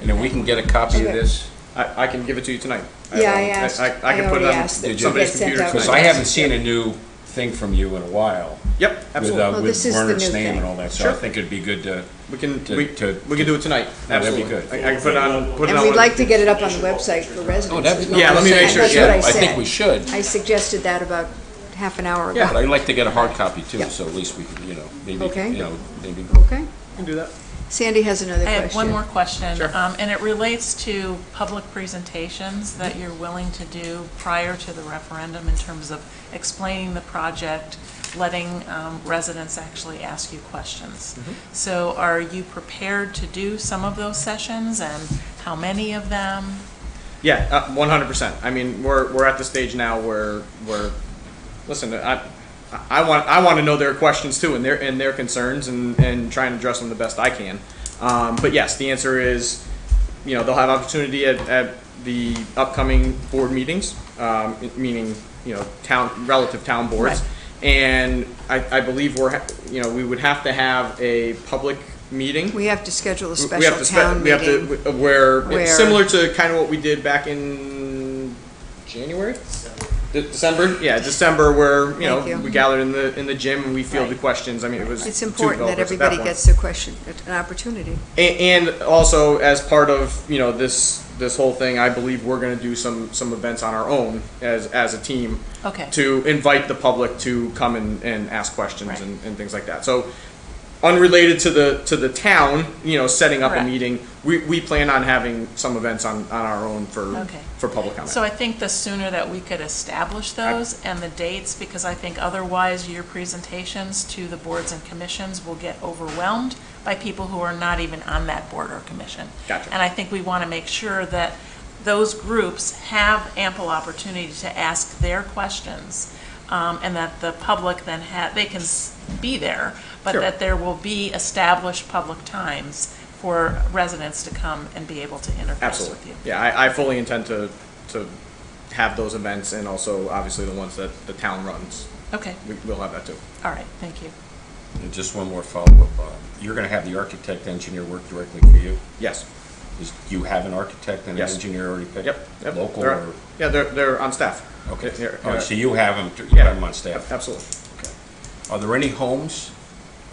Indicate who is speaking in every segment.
Speaker 1: And then we can get a copy of
Speaker 2: Okay.
Speaker 1: this,
Speaker 3: I, I can give it to you tonight.
Speaker 2: Yeah, I
Speaker 3: have, um,
Speaker 2: asked-
Speaker 3: I can
Speaker 2: I
Speaker 3: put it
Speaker 2: already
Speaker 3: on
Speaker 2: asked that
Speaker 1: it
Speaker 3: somebody's
Speaker 2: get sent
Speaker 3: computer
Speaker 2: out.
Speaker 3: tonight.
Speaker 1: because I haven't seen a new thing from you in a while.
Speaker 3: Yep, absolutely.
Speaker 1: With, uh,
Speaker 2: Well,
Speaker 1: with
Speaker 2: this is the
Speaker 1: Werner's
Speaker 2: new
Speaker 1: name
Speaker 2: thing.
Speaker 1: and all that, so I
Speaker 3: Sure.
Speaker 1: think it'd be good to,
Speaker 3: We can,
Speaker 1: to-
Speaker 3: we,
Speaker 1: to-
Speaker 3: we can do it tonight,
Speaker 1: that'd be
Speaker 3: absolutely.
Speaker 1: good.
Speaker 3: I I can put it on, put it on.
Speaker 2: And we'd
Speaker 3: one-
Speaker 2: like to get it up on the website for residents.
Speaker 1: oh, that'd be.
Speaker 3: Yeah, let me make sure,
Speaker 1: That's
Speaker 3: yeah.
Speaker 1: what I
Speaker 2: That's what I
Speaker 1: think
Speaker 2: said.
Speaker 1: we should,
Speaker 2: I suggested that about half an hour ago.
Speaker 1: but I'd like to get a hard copy too,
Speaker 2: Yeah.
Speaker 1: so at least we can, you know, maybe,
Speaker 2: Okay.
Speaker 1: you know, maybe.
Speaker 2: Okay.
Speaker 3: We can do that.
Speaker 2: Sandy has another
Speaker 4: I
Speaker 2: question.
Speaker 4: have one more question.
Speaker 3: Sure.
Speaker 4: um, And it relates to public presentations that you're willing to do prior to the referendum in terms of explaining the project, letting um, residents actually ask you questions. So are you prepared to do some of those sessions and how many of them?
Speaker 3: Yeah, uh, one hundred percent. I mean, we're we're at the stage now where where, listen, I I want I want to know their questions too and their and their concerns and and try and address them the best I can. Um, but yes, the answer is, you know, they'll have opportunity at, at the upcoming board meetings, um, meaning you know town relative town boards, and I, I believe we're ha- you know we would have to have a public meeting
Speaker 2: We have to schedule a
Speaker 3: we-
Speaker 2: special
Speaker 3: we have to
Speaker 2: town
Speaker 3: spe- we have to
Speaker 2: meeting.
Speaker 3: w- where,
Speaker 2: Where-
Speaker 3: similar to kind of what we did back in January, De- December. Yeah, December, where you know
Speaker 2: Thank you.
Speaker 3: we gathered in the in the gym and we fielded
Speaker 4: Right.
Speaker 3: questions. I mean, it was
Speaker 2: It's
Speaker 3: two
Speaker 2: important that
Speaker 3: developers at
Speaker 2: everybody
Speaker 3: point.
Speaker 2: gets a question, an opportunity.
Speaker 3: And, and also, as part of you know this this whole thing, I believe we're going to do some some events on our own as as a team.
Speaker 4: Okay.
Speaker 3: To invite the public to come and, and ask questions
Speaker 4: Right.
Speaker 3: and, and things like that. So, unrelated to the to the town, you know, setting up
Speaker 4: Correct.
Speaker 3: a meeting, we, we plan on having some events on, on our own for
Speaker 4: Okay.
Speaker 3: for public comment.
Speaker 4: So I think the sooner that we could establish those and the dates, because I think otherwise your presentations to the boards and commissions will get overwhelmed by people who are not even on that board or commission.
Speaker 3: Gotcha.
Speaker 4: And I think we want to make sure that those groups have ample opportunity to ask their questions, um, and that the public then ha, they can s- be there, but
Speaker 3: Sure.
Speaker 4: that there will be established public times for residents to come and be able to interface with
Speaker 3: Absolutely.
Speaker 4: you.
Speaker 3: Yeah, I, I fully intend to to have those events and also obviously the ones that the town runs.
Speaker 4: Okay,
Speaker 3: We, we'll have that too.
Speaker 4: all right, thank you.
Speaker 1: And just one more follow-up, Bob. You're gonna have the architect engineer work directly for you?
Speaker 3: Yes.
Speaker 1: Is, you have an architect and an
Speaker 3: Yes.
Speaker 1: engineer already picked?
Speaker 3: Yep, yep.
Speaker 1: Local
Speaker 3: They're-
Speaker 1: or?
Speaker 3: Yeah, they're, they're on staff.
Speaker 1: Okay,
Speaker 3: They're- they're-
Speaker 1: all right, so you have them, you have them on staff?
Speaker 3: Ab- Absolutely.
Speaker 1: Are there any homes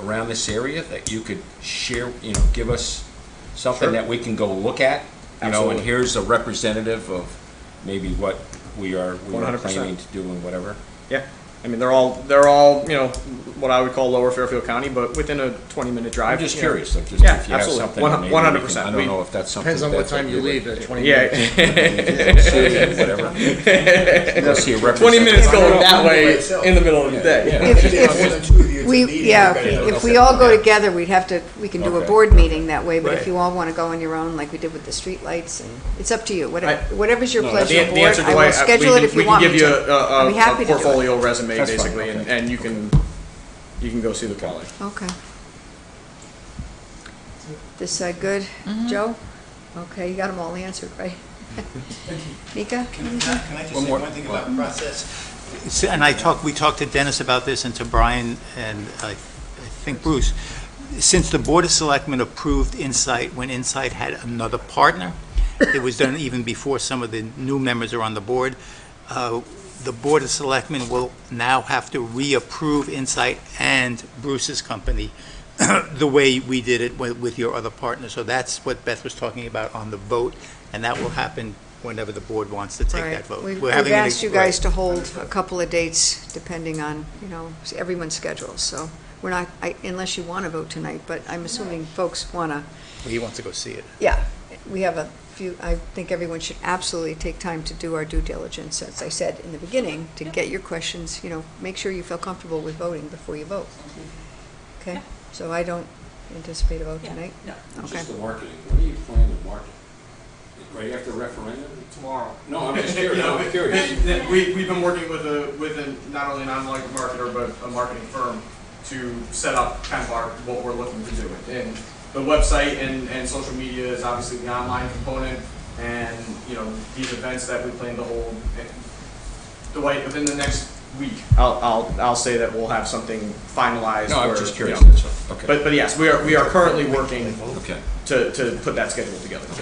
Speaker 1: around this area that you could share, you know, give us something
Speaker 3: Sure.
Speaker 1: that we can go look at? You know, and
Speaker 3: Absolutely.
Speaker 1: here's a representative of maybe what we are, we are
Speaker 3: 100%.
Speaker 1: planning to do and whatever.
Speaker 3: Yeah. I mean, they're all, they're all, you know, what I would call lower Fairfield County, but within a twenty-minute
Speaker 1: I'm
Speaker 3: drive.
Speaker 1: just
Speaker 3: you know.
Speaker 1: curious, like, just
Speaker 3: Yeah,
Speaker 1: if you have
Speaker 3: absolutely.
Speaker 1: something.
Speaker 3: One-
Speaker 1: maybe we
Speaker 3: 100%.
Speaker 1: can- I
Speaker 3: We-
Speaker 1: don't know if that's something.
Speaker 5: Depends on what
Speaker 1: that's
Speaker 5: time you
Speaker 1: would-
Speaker 5: leave, at 20 minutes.
Speaker 3: Yeah.
Speaker 1: Whatever. Go see a
Speaker 3: Twenty minutes
Speaker 1: representative.
Speaker 3: going
Speaker 5: Yeah.
Speaker 3: that way
Speaker 5: Yeah.
Speaker 3: in the middle of the day.
Speaker 2: If,
Speaker 5: More than
Speaker 2: if,
Speaker 5: two of you, it's a meeting,
Speaker 2: we, yeah,
Speaker 5: everybody knows
Speaker 2: if
Speaker 5: that.
Speaker 2: we all go together, we'd have to, we can do a
Speaker 1: Okay.
Speaker 2: board meeting that way, but if
Speaker 1: Right.
Speaker 2: you all want to go on your own, like we did with the streetlights, and it's up to you, whatever,
Speaker 3: I-
Speaker 2: whatever's your
Speaker 1: No,
Speaker 3: The-
Speaker 2: pleasure,
Speaker 3: the
Speaker 2: board.
Speaker 3: answer to
Speaker 2: I
Speaker 3: why-
Speaker 2: will
Speaker 3: uh, we
Speaker 2: schedule it
Speaker 3: can-
Speaker 2: if you want me to.
Speaker 3: We can give you
Speaker 2: I'd be
Speaker 3: a- a,
Speaker 2: happy to
Speaker 3: a
Speaker 2: do it.
Speaker 3: portfolio resume,
Speaker 1: That's fine,
Speaker 3: basically, and,
Speaker 1: okay.
Speaker 3: and you can, you can go see the quality.
Speaker 2: Okay. This side good? Joe? Okay, you got them all answered, right? Mika?
Speaker 5: Can I can I just
Speaker 1: One
Speaker 5: say
Speaker 1: more.
Speaker 5: one thing about process?
Speaker 6: So- And I talked, we talked to Dennis about this and to Brian and uh, I I think Bruce. Since the Board of Selectmen approved Insight when Insight had another partner, it was done even before some of the new members are on the board, uh, the Board of Selectmen will now have to reapprove Insight and Bruce's company the way we did it with with your other partner. So that's what Beth was talking about on the vote, and that will happen whenever the board wants to take
Speaker 2: Right.
Speaker 6: that vote.
Speaker 2: We've
Speaker 6: We're
Speaker 2: we've
Speaker 6: having an-
Speaker 2: asked you guys
Speaker 6: right.
Speaker 2: to hold a couple of dates depending on, you know, everyone's schedules, so we're not, I- unless you want to vote tonight, but I'm assuming folks want to,
Speaker 6: He wants to go see it.
Speaker 2: yeah, we have a few, I think everyone should absolutely take time to do our due diligence, as I said in the beginning, to get your questions, you know, make sure you feel comfortable with voting before you vote. Okay,
Speaker 4: Yeah.
Speaker 2: so I don't anticipate a vote
Speaker 4: Yeah.
Speaker 2: tonight?
Speaker 4: No.
Speaker 2: Okay.
Speaker 1: the marketing, what are you planning to market? Right after referendum?
Speaker 3: Tomorrow.
Speaker 1: No, I'm just
Speaker 3: You
Speaker 1: curious,
Speaker 3: know,
Speaker 1: I'm
Speaker 3: but-
Speaker 1: curious.
Speaker 3: that- that We, we've been working with a, with a, not only an online marketer, but a marketing firm to set up kind of our, what we're looking to do. And the website and, and social media is obviously the online component, and, you know, these events that we plan to hold. and Dwight, within the next week, I'll, I'll, I'll say that we'll have something finalized.
Speaker 1: No, I'm
Speaker 3: where,
Speaker 1: just
Speaker 3: you
Speaker 1: curious,
Speaker 3: know.
Speaker 1: that's all. okay,
Speaker 3: But, but yes, we are, we are currently working
Speaker 1: okay.
Speaker 3: to, to put that schedule together.